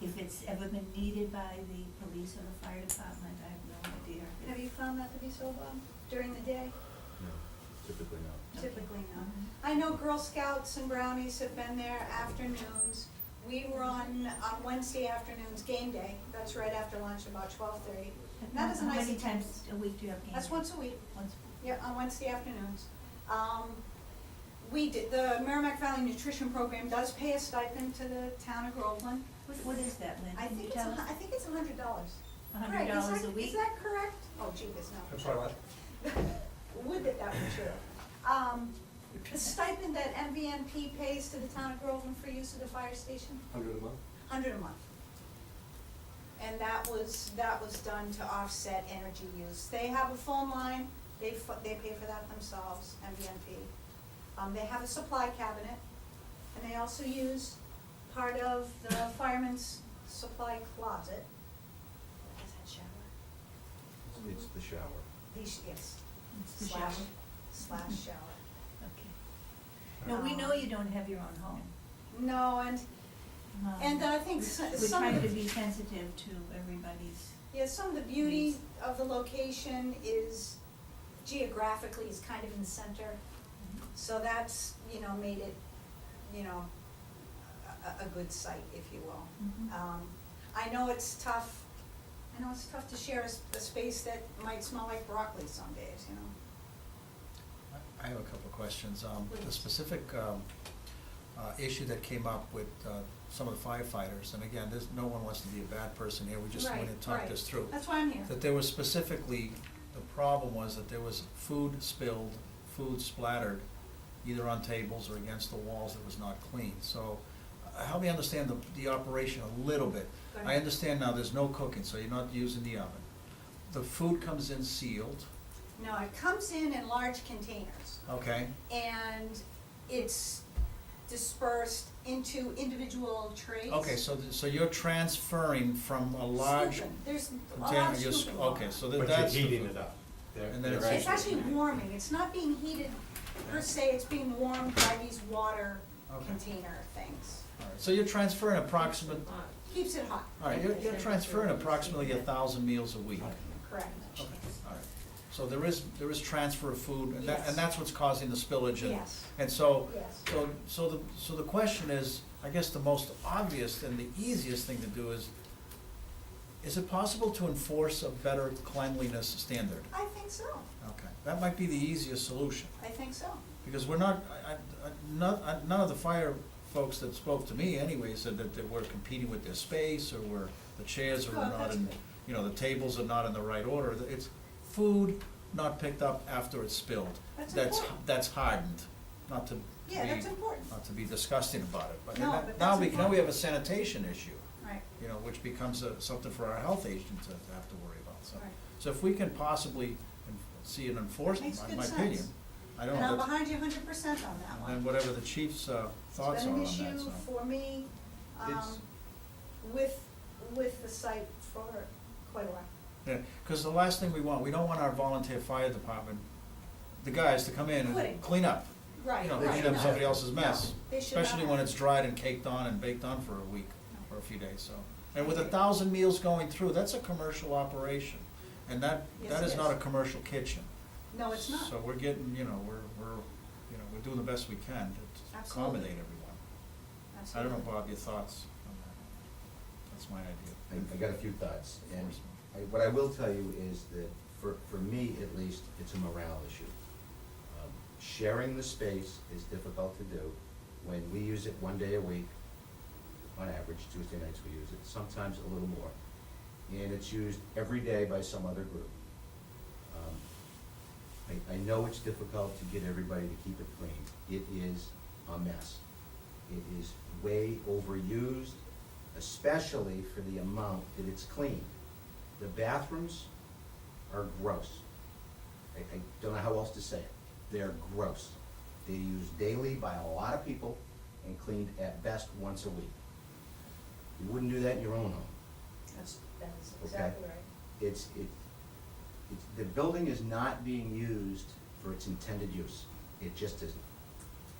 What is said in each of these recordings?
If it's ever been needed by the police or the fire department, I have no idea. Have you found that to be so long during the day? No, typically not. Okay. Typically not. Mhm. I know Girl Scouts and Brownies have been there afternoons. We were on, on Wednesday afternoons, game day, that's right after lunch, about twelve thirty. But That is a how nice. many times a week do you have games? That's once a week. Once a Yeah, on Wednesday afternoons. Um, we did, the Merrimack Valley Nutrition Program does pay a stipend to the town of Groveland. week. What, what is that, Lynn? I Can you think it's, tell a hun- us? I think it's a hundred dollars. A hundred Right, is dollars that- a week? Is that correct? Oh, gee, there's no. I'm sorry, what? Would that that were true. Um, the stipend that MVMP pays to the town of Groveland for use of the fire station, Hundred a month? hundred a month. And that was, that was done to offset energy use. They have a phone line, they, fu- they pay for that themselves, MVMP. Um, they have a supply cabinet, and they also use part of the fireman's supply closet. Is that shower? It's the shower. These, yes, It's the slash, shower. slash shower. Okay. No, we know you don't have your own home. No, and, Um, and I think so- We're some, trying to of the- be sensitive to everybody's, yeah, some of the beauty of the location is geographically is kind of in the center. So that's, you know, made it, you know, a, a- a good site, if you Mhm. will. Um, I know it's tough, I know it's tough to share a, s- a space that might smell like broccoli some days, you know? I have a couple of questions. Um, The Please. specific um, uh, issue that came up with uh, some of the firefighters, and again, there's, no one wants to be a bad person here, we just Right, want to talk right. this through. That's why I'm here. That there was specifically, the problem was that there was food spilled, food splattered, either on tables or against the walls that was not clean. So uh, help me understand the, the operation a little bit. Go I ahead. understand now there's no cooking, so you're not using the oven. The food comes in sealed, No, it comes in in large containers. okay? and it's dispersed into individual trays. Okay, so, th- so you're transferring from a large Scooping. There's a lot container, of you're, s- scooping going okay, on. so that- But that's. you're the heating food. it up. They're- And then they're it's- It's actually warming, it's not being heated per se, it's being warmed by these water Okay. container things. All right, So you're transferring approximate, Keeps it hot, all right, you're, you're transferring approximately a thousand meals a week. Okay, correct. all right. So there is, there is transfer of food, and that, Yes. and that's what's causing the spillage and. Yes. And so, Yes. so, so the, so the question is, I guess the most obvious and the easiest thing to do is, is it possible to enforce a better cleanliness standard? I think so, Okay, that might be the easiest solution. I think so. Because we're not, I, I, I- none, I- none of the fire folks that spoke to me anyway said that they were competing with their space, or were, the chairs are Oh, not that's in, good. you know, the tables are not in the right order. It's food not picked up after it's spilled. That's important. That's hardened, not to be, Yeah, that's important. not to be disgusting about it, but No, now- but now that's we, now important. we have a sanitation issue, Right, you know, which becomes a- something for our health agent to to have to worry about, so. Right. So if we can possibly en- see an enforcement, Makes in good my opinion, sense. I don't know. and I'm that's- behind you hundred percent on that one. and then whatever the chief's uh, thoughts are on that, It's so. been an issue for me, um, It's- with, with the site for quite a while. Because the last thing we want, we don't want our volunteer fire department, the guys to come in Quitting. and clean up. Right, You know, right, clean up no. somebody else's mess, No, they should not especially when have. it's dried and caked on and baked on for a week No. or a few days, so. And with a thousand meals going through, that's a commercial operation, and that, Yes, that it is not a is. commercial kitchen. No, it's not. So we're getting, you know, we're, we're, you know, we're doing the best we can to Absolutely. accommodate everyone. I don't know, Bob, your thoughts on that? That's my I, idea. I got a few thoughts, and I, what I will tell you is that, for, for me at least, it's a morale issue. Um, Sharing the space is difficult to do when we use it one day a week, on average, Tuesday nights we use it, sometimes a little more. And it's used every day by some other group. Um, I, I know it's difficult to get everybody to keep it clean, it is a mess. It is way overused, especially for the amount that it's cleaned. The bathrooms are gross. I, I don't know how else to say it. They're gross. They're used daily by a lot of people and cleaned at best once a week. You wouldn't do that in your own home. That's, that's Okay. exactly right. It's, it, it's, the building is not being used for its intended use. It just isn't.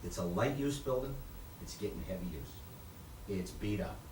It's a light use building, it's getting heavy use. It's beat up.